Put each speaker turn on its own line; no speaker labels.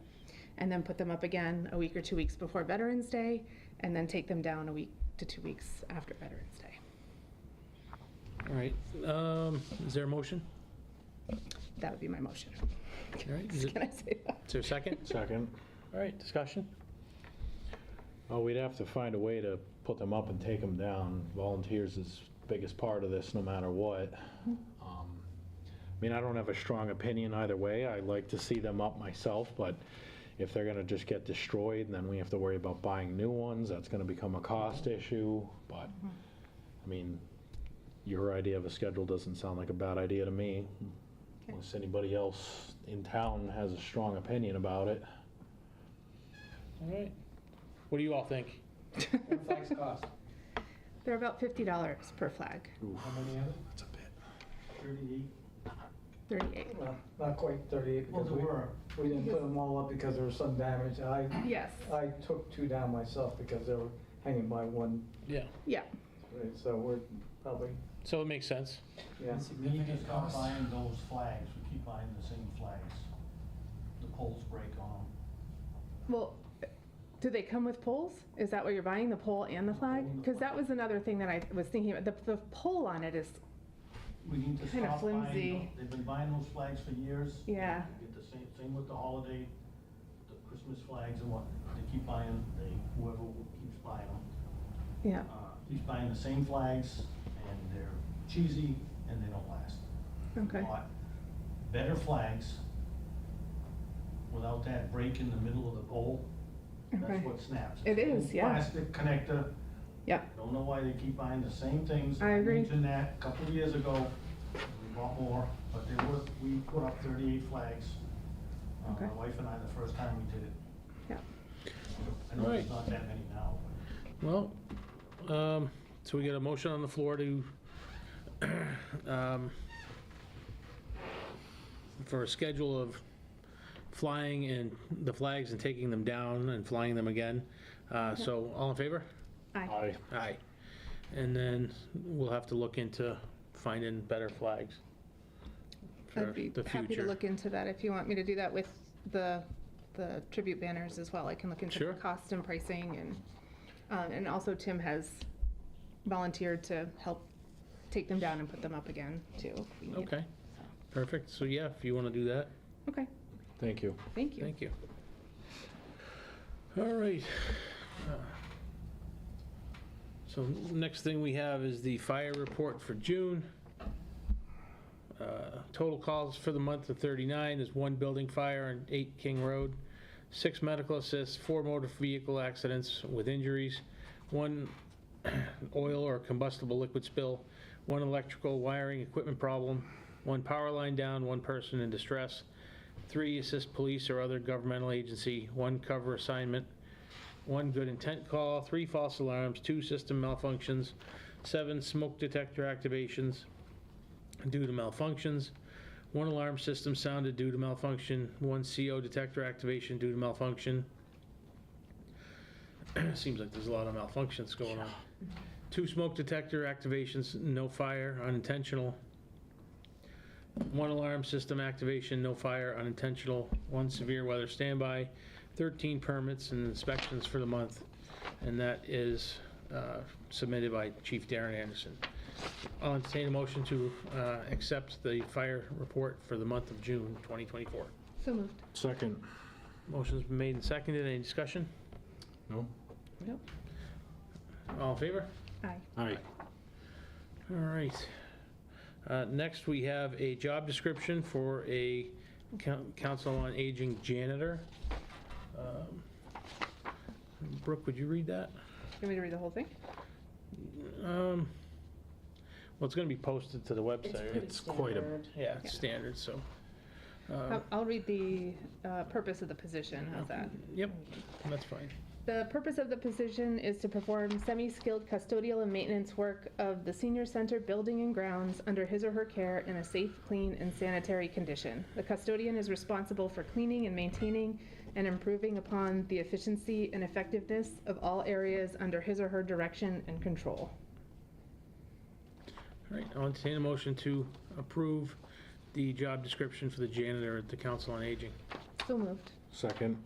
and then put them up again a week or two weeks before Veterans Day, and then take them down a week to two weeks after Veterans Day.
All right, um, is there a motion?
That would be my motion.
All right, is it-
Can I say that?
is there a second?
Second.
All right, discussion?
Oh, we'd have to find a way to put them up and take them down. Volunteers is biggest part of this, no matter what.
Mm-hmm.
Um, I mean, I don't have a strong opinion either way. I like to see them up myself, but if they're gonna just get destroyed, then we have to worry about buying new ones. That's gonna become a cost
Mm-hmm.
issue, but, I mean, your idea of a schedule doesn't sound like a bad idea to me.
Okay.
Unless anybody else in town has a strong opinion about it.
All right, what do you all think?
Flags cost,
They're about fifty dollars per flag,
how many of it?
That's a bit.
Thirty-eight.
thirty-eight.
Well, not quite thirty-eight
Well,
because
there were,
we, we didn't put them all up because there was some damage. I,
Yes,
I took two down myself because they were hanging by one,
Yeah,
yeah,
right, so we're probably,
so it makes sense.
yeah.
we just
Significant
kept
cost.
buying those flags, we keep buying the same flags. The poles break on
well, do they come with poles? Is that what you're buying, the pole and the flag? Because that was another thing that I was thinking about, the, the pole on it is,
them. We need to
Kinda
stop buying,
flimsy.
tho- they've been buying those flags for years.
Yeah.
We Get the same, same with the holiday, the Christmas flags and what, they keep buying, they, whoever keeps buying them.
yeah,
uh, Keeps buying the same flags and they're cheesy and they don't last.
okay,
bought better flags without that break in the middle of the pole.
Okay.
That's what snaps.
It is,
Old
yeah.
Plastic connector.
yeah,
Don't know why they keep buying the same things.
I agree.
Mentioned that a couple of years ago. We bought more, but there was, we put up 38 flags. Uh,
Okay.
My wife and I, the first time we did it.
yeah.
I know
Right.
there's not that many now.
Well, um, so we got a motion on the floor to, um, for a schedule of flying and the flags and taking them down and flying them again. Uh, so all in favor?
Aye,
Aye.
Aye. And then we'll have to look into finding better flags for
I'd be
the
happy to
future.
look into that if you want me to do that with the, the tribute banners as well. I can look into
Sure.
the cost and pricing and, um, and also Tim has volunteered to help take them down and put them up again too. if we need it.
Okay, perfect. So yeah, if you want to do that,
Okay,
Thank you.
thank you.
thank you. All right. Uh, So next thing we have is the fire report for June. Uh, Total calls for the month of 39 is one building fire on 8 King Road, six medical assists, four motor vehicle accidents with injuries, one oil or combustible liquid spill, one electrical wiring equipment problem, one power line down, one person in distress, three assist police or other governmental agency, one cover assignment, one good intent call, three false alarms, two system malfunctions, seven smoke detector activations due to malfunctions, one alarm system sounded due to malfunction, one CO detector activation due to malfunction. Seems like there's a lot of malfunctions going on. Two smoke detector activations, no fire, unintentional. One alarm system activation, no fire, unintentional. One severe weather standby, 13 permits and inspections for the month. And that is uh, submitted by Chief Darren Anderson. I'll entertain a motion to uh, accept the fire report for the month of June 2024.
So moved.
Second.
Motion's been made and seconded. Any discussion?
No?
Yep.
All in favor?
Aye.
Aye.
All right. Uh, Next, we have a job description for a coun- council on aging janitor. Um, Brooke, would you read that?
You want me to read the whole thing?
Um, Well, it's going to be posted to the website. right?
It's quite a,
Yeah, it's standard, so. uh,
I'll- I'll read the uh, purpose of the position, how's that?
Yep, that's fine.
The purpose of the position is to perform semi-skilled custodial and maintenance work of the senior center building and grounds under his or her care in a safe, clean, and sanitary condition. The custodian is responsible for cleaning and maintaining and improving upon the efficiency and effectiveness of all areas under his or her direction and control.
All right, I'll entertain a motion to approve the job description for the janitor at the Council on Aging.
So moved.
second.